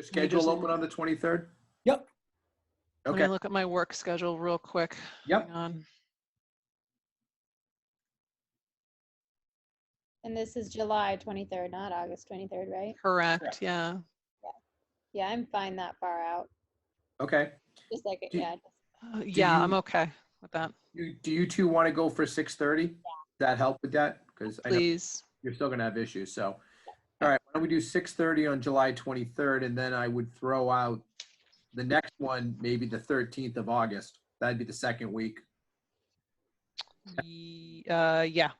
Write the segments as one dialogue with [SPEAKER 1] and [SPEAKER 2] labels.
[SPEAKER 1] schedule open on the 23rd?
[SPEAKER 2] Yep.
[SPEAKER 3] Let me
[SPEAKER 1] Okay,
[SPEAKER 3] look at my work schedule real quick.
[SPEAKER 1] Yep.
[SPEAKER 3] Hang on.
[SPEAKER 4] And this is July 23rd, not August 23rd, right?
[SPEAKER 3] Correct, yeah.
[SPEAKER 4] Yeah, I'm fine that far out.
[SPEAKER 1] okay.
[SPEAKER 4] Just like, it.
[SPEAKER 1] Do-
[SPEAKER 4] yeah,
[SPEAKER 3] Uh, Yeah, I'm
[SPEAKER 1] you-
[SPEAKER 3] okay with that,
[SPEAKER 1] You- Do you two want to go for 6:30? That help with that? Because I know
[SPEAKER 3] please.
[SPEAKER 1] you're still going to have issues, so. All right, why don't we do 6:30 on July 23rd, and then I would throw out the next one, maybe the 13th of August. That'd be the second week,
[SPEAKER 3] Ye- Uh, yeah,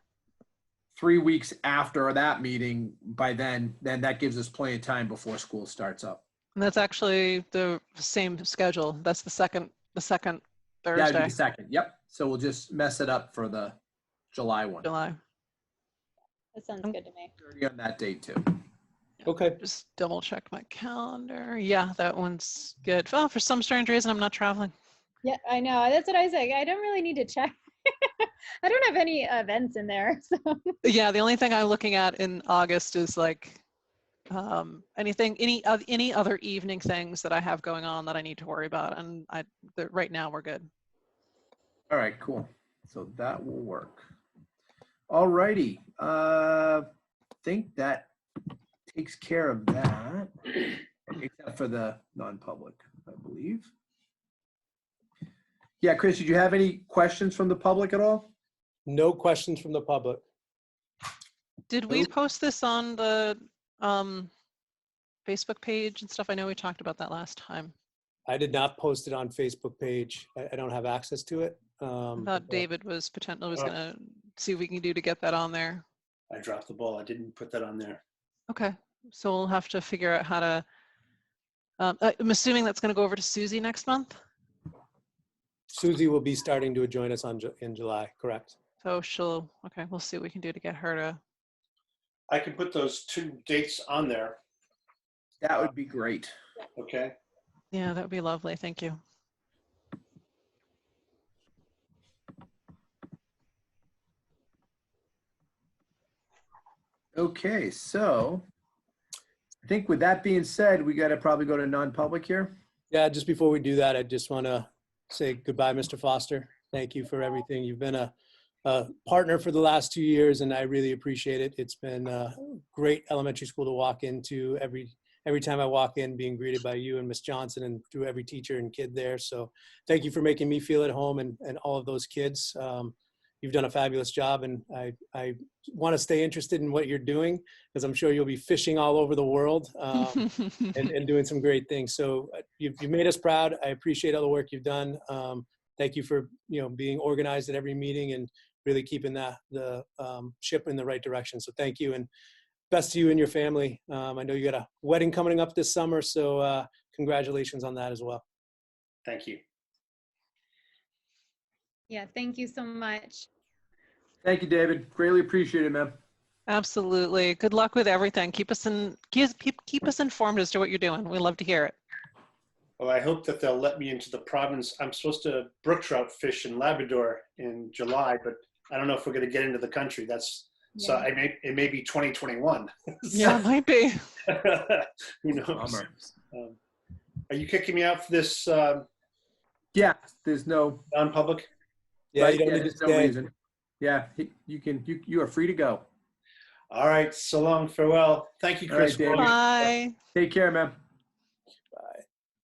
[SPEAKER 1] three weeks after that meeting by then, then that gives us plenty of time before school starts up.
[SPEAKER 3] and that's actually the same schedule. That's the second, the second
[SPEAKER 1] That'd be
[SPEAKER 3] Thursday,
[SPEAKER 1] the second, yep. So we'll just mess it up for the July one.
[SPEAKER 3] July.
[SPEAKER 4] that sounds
[SPEAKER 3] Um,
[SPEAKER 4] good to me.
[SPEAKER 1] 30 on that date too.
[SPEAKER 2] Okay.
[SPEAKER 3] Just double check my calendar. Yeah, that one's good. Oh, for some strange reason, I'm not traveling.
[SPEAKER 4] Yeah, I know. That's what I say. I don't really need to check. I don't have any events in there, so.
[SPEAKER 3] Yeah, the only thing I'm looking at in August is like um, anything, any of any other evening things that I have going on that I need to worry about, and I the, right now we're good.
[SPEAKER 1] All right, cool. So that will work. All righty, uh, think that takes care of that, except for the non-public, I believe. Yeah, Chris, did you have any questions from the public at all?
[SPEAKER 2] No questions from the public.
[SPEAKER 3] Did we
[SPEAKER 1] Oop.
[SPEAKER 3] post this on the um, Facebook page and stuff? I know we talked about that last time
[SPEAKER 2] I did not post it on Facebook page. I, I don't have access to it. Um,
[SPEAKER 3] about
[SPEAKER 2] but
[SPEAKER 3] David was potentially was
[SPEAKER 5] Mm-hmm. Uh,
[SPEAKER 3] gonna see what we can do to get that on there.
[SPEAKER 5] I dropped the ball. I didn't put that on there.
[SPEAKER 3] Okay, so we'll have to figure out how to. Um, I- I'm assuming that's gonna go over to Susie next month,
[SPEAKER 2] Susie will be starting to join us on Ju- in July. Correct.
[SPEAKER 3] so she'll. Okay, we'll see what we can do to get her to.
[SPEAKER 5] I can put those two dates on there,
[SPEAKER 1] That would be great.
[SPEAKER 5] okay?
[SPEAKER 3] Yeah, that would be lovely. Thank you.
[SPEAKER 1] Okay, so I think with that being said, we gotta probably go to non-public here.
[SPEAKER 2] Yeah. Just before we do that, I just want to say goodbye, Mr. Foster. Thank you for everything. You've been a, a partner for the last two years, and I really appreciate it. It's been a great elementary school to walk into every every time I walk in, being greeted by you and Miss Johnson and through every teacher and kid there. So thank you for making me feel at home and and all of those kids. Um, you've done a fabulous job, and I I want to stay interested in what you're doing because I'm sure you'll be fishing all over the world. Um, and, and doing some great things. So uh, you've, you've made us proud. I appreciate all the work you've done. Um, thank you for you know being organized at every meeting and really keeping that the um, ship in the right direction. So thank you and best to you and your family. Um, I know you got a wedding coming up this summer, so uh, congratulations on that as well.
[SPEAKER 5] Thank you.
[SPEAKER 4] Yeah, thank you so much.
[SPEAKER 1] Thank you, David. Greatly appreciate it, man.
[SPEAKER 3] Absolutely. Good luck with everything. Keep us in keep keep, keep us informed as to what you're doing. We love to hear it.
[SPEAKER 5] Well, I hope that they'll let me into the province. I'm supposed to brook trout fish in Labrador in July, but I don't know if we're going to get into the country. That's so. I may it may be 2021.
[SPEAKER 3] Yeah, it might be.
[SPEAKER 5] Who knows?
[SPEAKER 1] Bummer.
[SPEAKER 5] Um, are you kicking me out for this um
[SPEAKER 1] Yeah, there's no,
[SPEAKER 5] non-public?
[SPEAKER 2] Yeah,
[SPEAKER 1] right,
[SPEAKER 2] you don't need to
[SPEAKER 1] there's no
[SPEAKER 2] stay.
[SPEAKER 1] reason. Yeah, he- you can, you, you are free to go.
[SPEAKER 5] All right. So long. Farewell. Thank you,
[SPEAKER 1] All right,
[SPEAKER 5] Chris. for all
[SPEAKER 1] David.
[SPEAKER 5] your-
[SPEAKER 3] Bye.
[SPEAKER 1] Take care, man.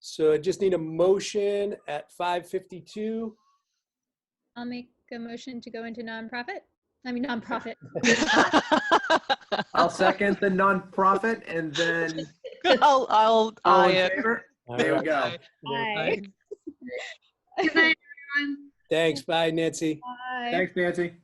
[SPEAKER 2] So I just need a motion at 5:52.
[SPEAKER 4] I'll make a motion to go into nonprofit. I mean, nonprofit.
[SPEAKER 1] I'll second the nonprofit and then
[SPEAKER 3] I'll I'll
[SPEAKER 1] all
[SPEAKER 3] I
[SPEAKER 1] in
[SPEAKER 3] it.
[SPEAKER 1] favor?
[SPEAKER 2] All
[SPEAKER 1] Oh, There we
[SPEAKER 2] right.
[SPEAKER 1] go.
[SPEAKER 4] Bye.
[SPEAKER 3] Bye.
[SPEAKER 6] Good night, everyone.
[SPEAKER 2] Thanks. Bye, Nancy.
[SPEAKER 4] Bye.
[SPEAKER 1] Thanks, Nancy.